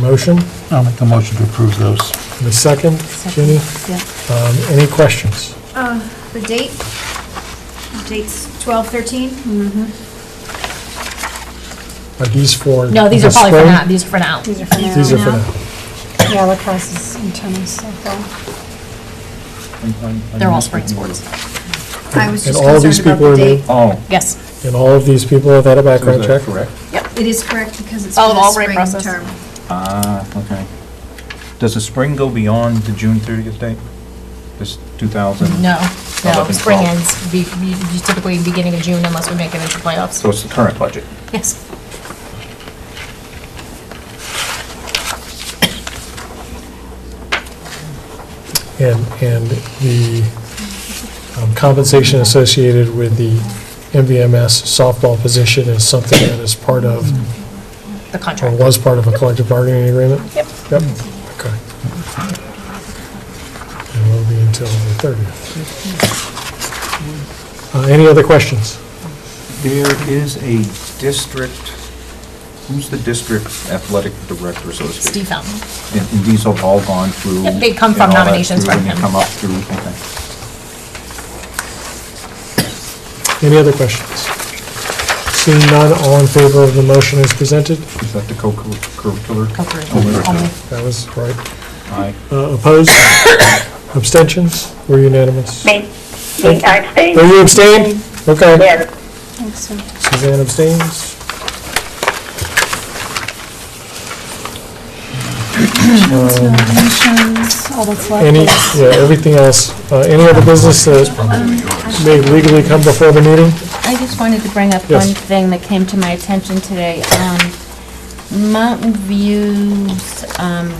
motion? I'll make the motion to approve those. And a second? Ginny, Yeah. um, any questions? Uh, The date, The date's 12/13? Are these for? No, these are the probably for spring? now, these are for now. These are for now. These are for now. now. Yeah, lacrosse is in tennis, so far. They're all spring sports. I was And just all these concerned people about are the new, date. Oh. Yes. and all of these people have had a so background is check? that Correct. It is correct because it's Oh, for the the Albright spring process. term. Ah, okay. Does the spring go beyond the June 30th date? This Mm-hmm. 2000? No, no, Eleven, spring twelve. ends be- be- typically beginning of June unless we make it into playoffs. So it's the current budget? Yes. And, and the um, compensation associated with the MVMS softball position is something that is part of, The or contract. was part of a collective bargaining agreement? Yep. Yep, okay. And will be until the 30th. Uh, Any other questions? There is a district, who's the district athletic director association? Steve Fountain. And and these have all gone through? Yep, they come from and all that nominations through, from and they him. come up through, okay. Any other questions? Seeing none, all in favor of the motion as presented? Is that the co-curricular? Oh, Oh, Co-curricular, only. That was right. Aye. Uh, Opposed? Abstentions? We're unanimous. Me, me, I abstain, Were you abstained? Okay. yes. Thanks, sir. Suzanne abstains. Donations, all that's Um, left. Any, is- yeah, everything else, uh, any other business that may legally come before the meeting? I just wanted to bring up Yes. one thing that came to my attention today. Um, Mountain View's um,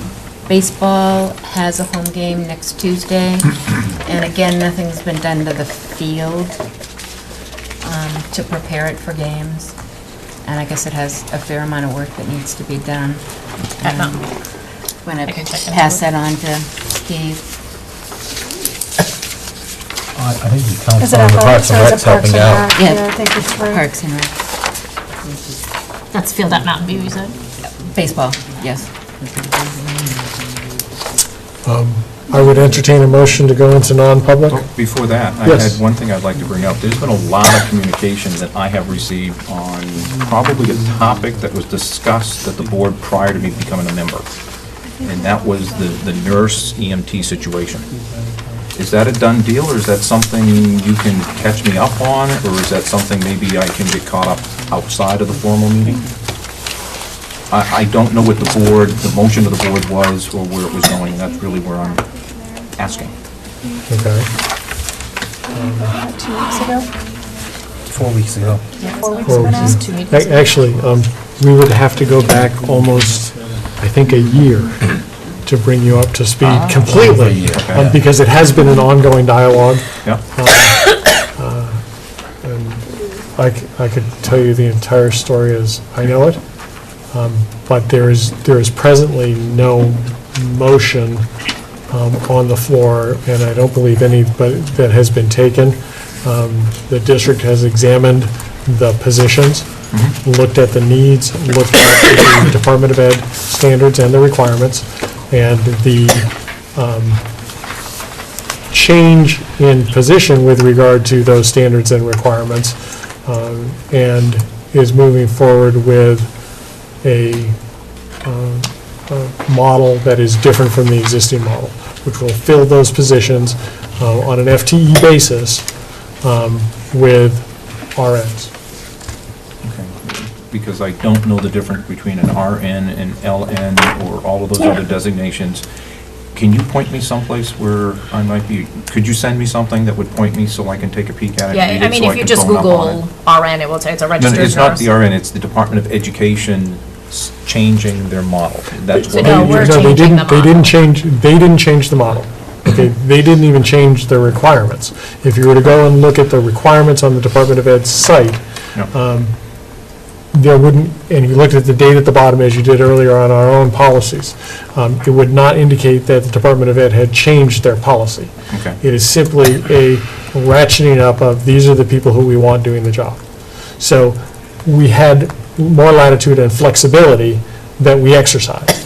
baseball has a home game next Tuesday, and again, nothing's been done to the field um, to prepare it for games. And I guess it has a fair amount of work that needs to be done. At Mountain Um, Wanna I can check it out. pass that on to Steve. I I think the town Is it found the athletic? Parks So and is Rec's it Parks helping and out. Rec? Yeah. Yeah, I think it's for- Parks and Rec. That's field at Mountain View, you said? Baseball, yes. I would entertain a motion to go into non-public. Well, Oh, Before that, I Yes. had one thing I'd like to bring up. There's been a lot of communication that I have received on probably a topic that was discussed at the board prior to me becoming a member, and that was the the nurse EMT situation. Is that a done deal, or is that something you can catch me up on, or is that something maybe I can get caught up outside of the formal meeting? I I don't know what the board, the motion of the board was, or where it was going. That's really where I'm asking. Okay. Two weeks ago? Four weeks ago. Four weeks ago now? Two meetings. Ac- Actually, um, we would have to go back almost, I think, a year to bring you up to speed completely, okay. um, because it has been an ongoing dialogue. Yeah? I c- I could tell you the entire story as I know it, um, but there is, there is presently no motion um, on the floor, and I don't believe any but- that has been taken. Um, The district has examined the positions, looked at the needs, looked at the Department of Ed standards and the requirements, and the um, change in position with regard to those standards and requirements, um, and is moving forward with a um, a model that is different from the existing model, which will fill those positions uh, on an FTE basis um, with RNs. Okay, Because I don't know the difference between an RN and LN or all of those other designations. Can you point me someplace where I might be, could you send me something that would point me so I can take a peek at it? Yeah, read I it, mean, so if you can just bone up on Google it? RN, it will say it's a No, registered no, nurse. it's not the RN, it's the Department of Education s- changing their model. That's So what. no, I'm- No, we're they changing didn't- the They didn't model. change, they didn't change the model. Okay, they didn't even change the requirements. If you were to go and look at the requirements on the Department of Ed's site, No. there wouldn't, and you looked at the date at the bottom, as you did earlier on our own policies, um, it would not indicate that the Department of Ed had changed their policy. Okay. It is simply a ratcheting up of, these are the people who we want doing the job. So we had more latitude and flexibility that we exercised.